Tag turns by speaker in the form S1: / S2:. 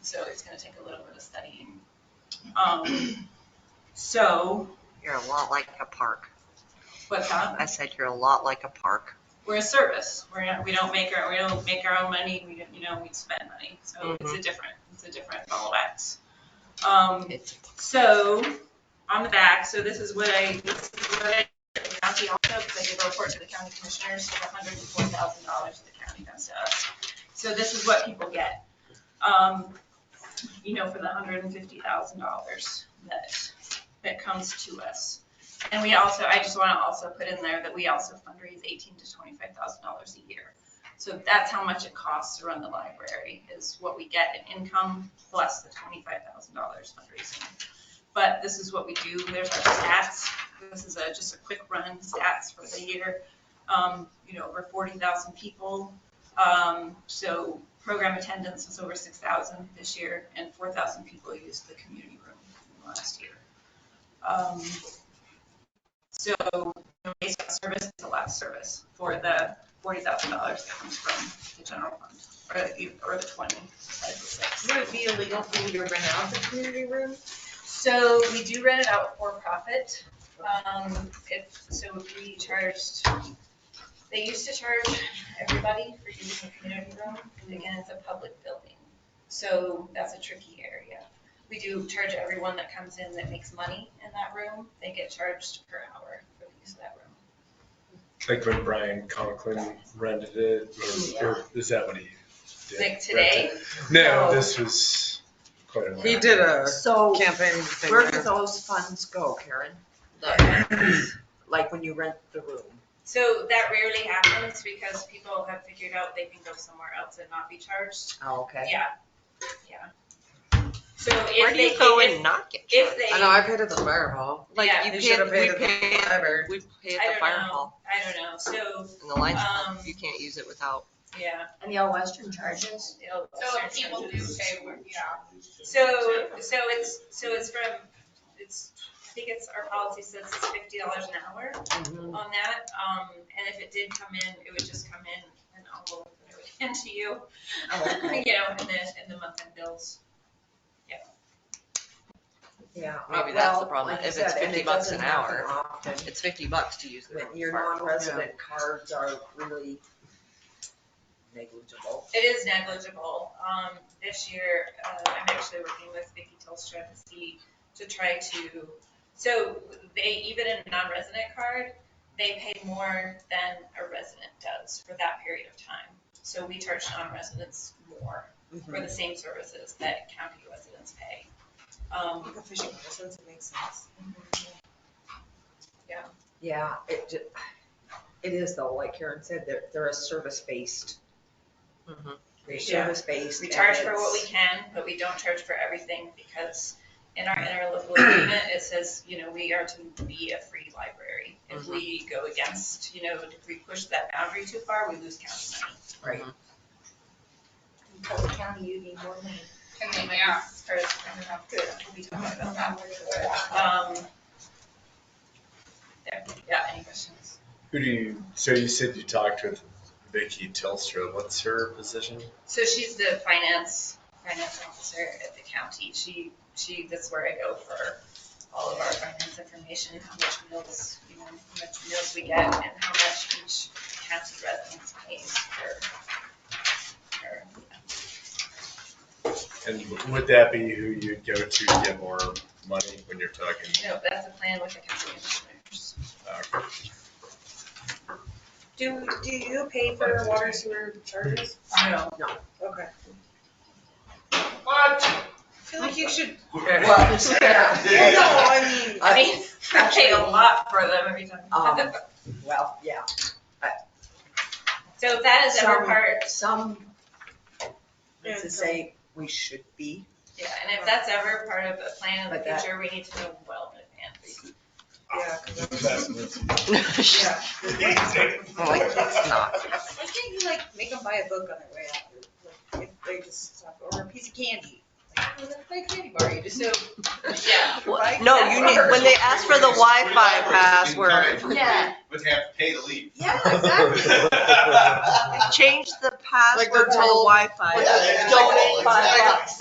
S1: so it's gonna take a little bit of studying. Um, so,
S2: You're a lot like a park.
S1: what's that?
S2: I said you're a lot like a park.
S1: we're a service. We're not, we don't make our, we don't make our own money. We don't, you know, we spend money. So it's a different, it's a different ball of wax. Um,
S2: It's,
S1: so on the back, so this is what I, this is what I, the county also, because I did a report to the county commissioners, so the hundred and four thousand dollars the county does to us. So this is what people get, um, you know, for the hundred and fifty thousand dollars that, that comes to us. And we also, I just want to also put in there that we also fundraise eighteen to twenty-five thousand dollars a year. So that's how much it costs to run the library, is what we get in income plus the twenty-five thousand dollars fundraising. But this is what we do, there's our stats, this is a, just a quick run, stats for the year. Um, you know, over forty thousand people, um, so program attendance was over six thousand this year, and four thousand people used the community room in the last year. Um, so, you know, basic service is a lot of service for the forty thousand dollars that comes from the general fund, or the, or the twenty, five to six.
S3: Would it be illegal for you to rent out the community room?
S1: So we do rent it out for profit. Um, if, so if we charged, they used to charge everybody for using the community room, because again, it's a public building. So that's a tricky area. We do charge everyone that comes in that makes money in that room, they get charged per hour for the use of that room.
S4: Like when Brian Conklin rented it, or, or is that what he did?
S1: Like today?
S4: No, this was quite a while.
S3: He did
S4: ago.
S3: a
S5: So
S3: campaign thing.
S5: where do those funds go, Karen? Like when you rent the room?
S1: So that rarely happens because people have figured out they can go somewhere else and not be charged.
S5: Oh, okay.
S1: Yeah, yeah. So
S2: where
S1: if
S2: do
S1: they,
S2: you go
S1: if,
S2: and not get
S1: if
S2: charged?
S1: they.
S3: I know, I paid at the fire hall.
S2: Like
S1: yeah,
S2: you
S3: They
S2: pay, at-
S3: should have
S2: we
S3: paid at
S2: pay,
S3: the
S2: at-
S3: library.
S2: we
S1: I
S2: pay at
S1: don't
S2: the fire
S1: know.
S2: hall
S1: I don't know, so,
S2: and the lions club.
S1: Um,
S2: You can't use it without.
S1: yeah.
S6: And the All Western charges?
S1: it'll-
S7: So if people do pay, we're- yeah.
S1: So, so it's, so it's from, it's, I think it's, our policy says it's fifty dollars an hour on that. Um, and if it did come in, it would just come in an envelope that I would hand to you,
S5: Oh, okay.
S1: you know, in the, in the month-end bills.
S5: Yeah.
S2: Maybe that's the
S5: well,
S2: problem.
S5: like I
S2: If it's
S5: said, and
S2: 50
S5: it
S2: bucks an
S5: doesn't happen
S2: hour.
S5: often.
S2: It's fifty bucks to use the room.
S5: But Your non-resident cards are really negligible.
S1: It is negligible. Um, this year, uh, I'm actually working with Vicky Telstra to see, to try to, so they, even in a non-resident card, they pay more than a resident does for that period of time. So we charge non-residents more for the same services that county residents pay. Um,
S3: fishing license, it makes sense.
S5: Yeah, it, ju- it is though, like Karen said, they're, they're a service-based.
S2: Mhm.
S5: They're
S1: Yeah.
S5: service-based.
S1: We
S5: and
S1: charge for what
S5: it's-
S1: we can, but we don't charge for everything because in our interlocal agreement, it says, you know, we are to be a free library. If we go against, you know, if we push that boundary too far, we lose county money.
S6: Because the county, you need more money.
S7: And then, yeah.
S1: Or, I don't know, good, we'll be talking about that. Um, There, yeah, any questions?
S4: Who do you, so you said you talked with Vicky Telstra. What's her position?
S1: So she's the finance, finance officer at the county. She, she, that's where I go for all of our finance information, how much meals, you know, how much meals we get and how much each county resident pays for. for-
S4: And would that be who you'd go to to get more money when you're talking?
S1: No, that's a plan with the county commissioners.
S4: uh,
S3: Do, do you pay for water sewer charges?
S1: No,
S3: Okay.
S7: What?
S3: I feel like you should.
S5: Well, yeah,
S3: You know, I mean.
S1: I mean, I pay a lot for them every time.
S5: Um, well, yeah.
S1: So if that is ever
S5: Some-
S1: part,
S5: Some,
S3: Yeah,
S5: to
S3: some-
S5: say we should be,
S1: yeah, and if that's ever part of a plan in
S5: But
S1: the
S5: that-
S1: future, we need to know well in advance.
S3: Yeah, 'cause I was-
S2: Yeah. Like, it's not.
S3: Why can't you like make them buy a book on their way out? Like, if they just stop, or a piece of candy. Like, oh, let's buy a candy bar. You just so
S1: Yeah,
S3: Like,
S2: No,
S3: that's
S2: you need, when they ask for the Wi-Fi password,
S1: Yeah.
S8: Would have to pay to leave.
S3: Yeah, exactly.
S2: change the
S3: Like
S2: password
S3: they're
S2: to
S3: told-
S2: Wi-Fi.
S8: Yeah,
S3: it's double,
S2: Donate five
S8: exactly.
S2: bucks.